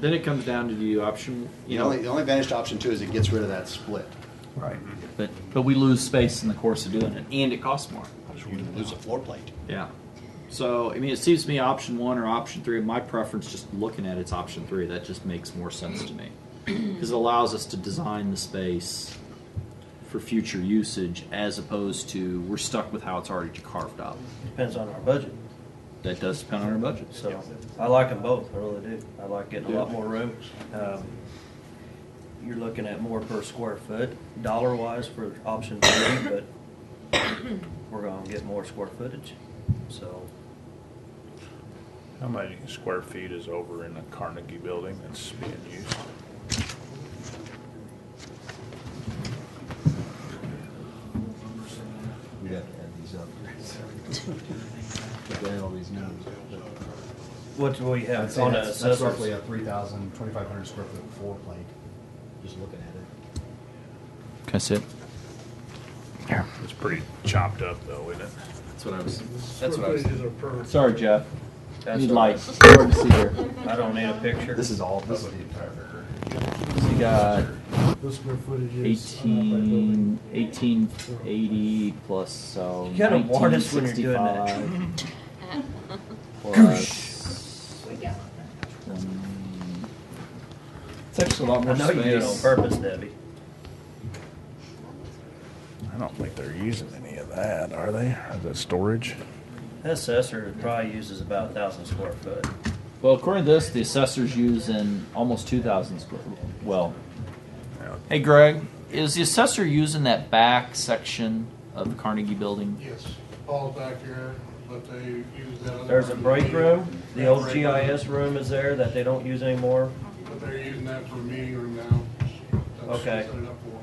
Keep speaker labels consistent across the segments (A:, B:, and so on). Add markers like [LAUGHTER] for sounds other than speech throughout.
A: Then it comes down to the option, you
B: The
A: know.
B: only, the only advantage to option two is it gets rid of that split.
A: Right.
C: But, but we lose space in the course of doing it.
A: And it costs more.
B: You lose a floor plate.
A: Yeah. So, I mean, it seems to me option one or option three, my preference, just looking at it's option three, that just makes more sense to me. Because it allows us to design the space for future usage as opposed to we're stuck with how it's already carved up.
D: Depends on our budget,
A: That does depend on our budget.
D: so I like them both, I really do. I like getting a lot more room. Um, You're looking at more per square foot, dollar wise for option three, but we're gonna get more square footage, so.
E: How many square feet is over in the Carnegie building that's being used?
B: We'd have to add these up. [LAUGHS] But then all these numbers.
D: What do we
F: I'd
D: have
F: say
D: on
F: that's, that's roughly
D: assessors?
F: a 3,000, 2,500 square foot floor plate, just looking at it.
C: Can I sit?
E: It's pretty chopped up though, isn't it?
A: That's what I was.
C: That's what I was.
G: are per.
C: Sorry, Jeff.
D: That's
C: Need
D: all right.
C: lights. Hard to see here.
D: I don't need a picture.
B: This is all, this is the entire.
C: So you got
G: The square footage is. on that by building.
C: 18, 1880 plus so.
D: You gotta warn us when you're doing that.
C: 1965 plus, um, It's actually a lot
D: I
C: more
D: know you did it on
C: space.
D: purpose, Debbie.
E: I don't think they're using any of that, are they? Is that storage?
D: That Assessor probably uses about a thousand square foot.
C: Well, according to this, the assessors use in almost 2,000 square. Well,
E: Yeah.
C: hey Greg, is the assessor using that back section of the Carnegie Building?
G: Yes, Paul's back here, but they use that other.
D: There's a break room, the old
G: Break room,
D: GIS room is there that they don't use anymore.
G: But they're using that for a meeting room now. That's what they
D: Okay.
G: set it up for.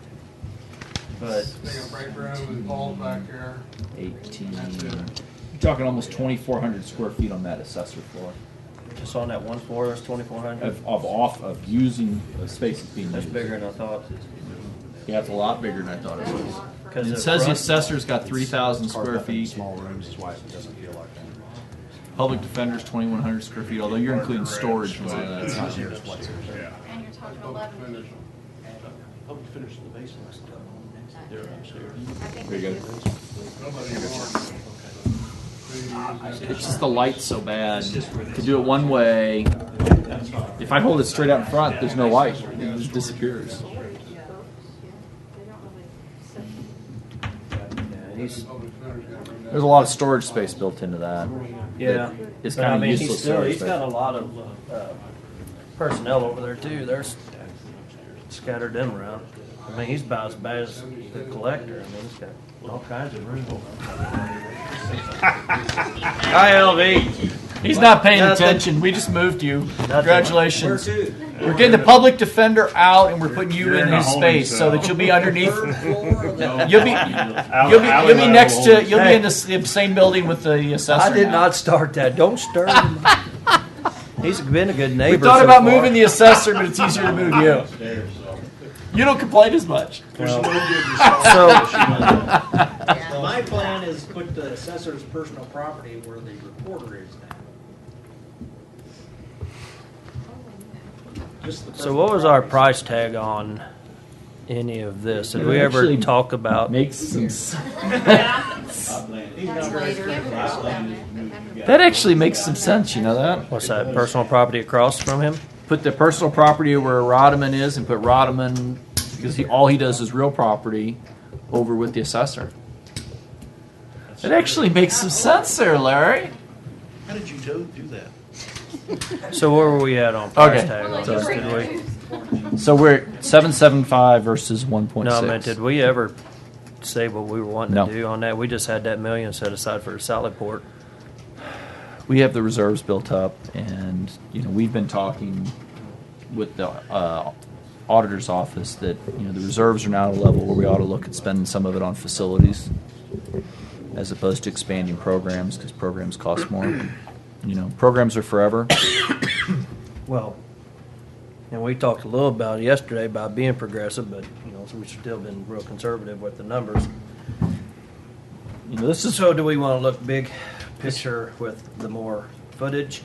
D: But
G: They got break room and Paul's back here.
C: 18.
G: That's
C: You're
G: it.
C: talking almost 2,400 square feet on that assessor floor
D: just on that one floor, there's twenty-four hundred.
C: of, of off of using uh, spaces being
D: That's
C: used.
D: bigger than I thought.
C: Yeah, it's a lot bigger than I thought it was.
D: 'Cause
C: It
D: the
C: says the
D: front-
C: assessor's got 3,000
B: Carved
C: square
B: up into
C: feet.
B: Small rooms is why it doesn't feel like that.
C: Public defender's 2,100 square feet, although you're including storage and all
B: It's
C: that.
B: not here, it's what's here.
E: Yeah.
H: And you're talking
G: Public
H: eleven.
G: finish.
I: Public finish in the basement, that's down next, they're upstairs.
H: I think
C: There you
H: we
C: go.
H: just-
G: Nobody wants. They use
C: It's just the light's so bad. To do it one way, if I hold it straight out in front, there's no light. It just disappears.
D: Yeah, he's-
G: that. Public finish, yeah, bring that.
C: There's a lot of storage space built into that.
D: Yeah.
C: It's
D: But I
C: kind of
D: mean, he's
C: useless
D: still-
C: storage
D: He's got a
C: space.
D: lot of, uh, personnel over there too, there's scattered them around. I mean, he's about as bad as the collector, I mean, he's got all kinds of room.
C: [LAUGHS] Hi, LV. He's not paying
D: Nothing.
C: attention. We just moved you.
D: Where
C: Congratulations.
D: to?
C: We're getting the public defender out and we're putting you
E: You're
C: in
E: in a
C: his
E: holding
C: space so that
E: cell.
C: you'll be
D: [LAUGHS]
C: underneath.
I: No.
C: You'll be,
E: Alley-
C: you'll be, you'll
E: alleyway
C: be next to,
E: holding
C: you'll be
D: Hey.
C: in the s- same building with the assessor
D: I did
C: now.
D: not start that. Don't stir
C: [LAUGHS]
D: him. He's been a good neighbor.
C: We thought
D: so
C: about
D: far.
C: moving the assessor, but it's easier to move you. You don't complain as much.
D: So
I: My plan is put the assessor's personal property where the recorder is now, just the.
D: so what was our
I: personal
D: price tag on any of this? Did
C: It
D: we ever
C: actually
D: talk about?
C: Makes some. s-
I: property. He's not very strict.
C: That actually makes some sense. You know that.
D: What's that? Personal property across from him?
C: Put the personal property where Rodman is, and put Rodman because he all he does is real property over with the assessor. That actually makes some sense there, Larry.
I: How did you do, do that?
D: So where were we at on price
C: Okay.
D: tag on this? Did we?
C: So we're at seven seven five versus one point
D: No,
C: six.
D: I meant did we ever say what we were wanting
C: No.
D: to do on that? We just had that million set aside for Sallyport. port.
C: we have the reserves built up, and you know we've been talking with the uh, auditor's office that you know the reserves are now at a level where we ought to look at spending some of it on facilities as opposed to expanding programs because programs cost more. You know, programs are forever.
D: Well, and we talked a little about it yesterday about being progressive, but you know, we've still been real conservative with the numbers.
C: You know, this is
D: So do we want to look big picture with the more footage?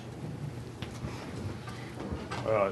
E: Uh,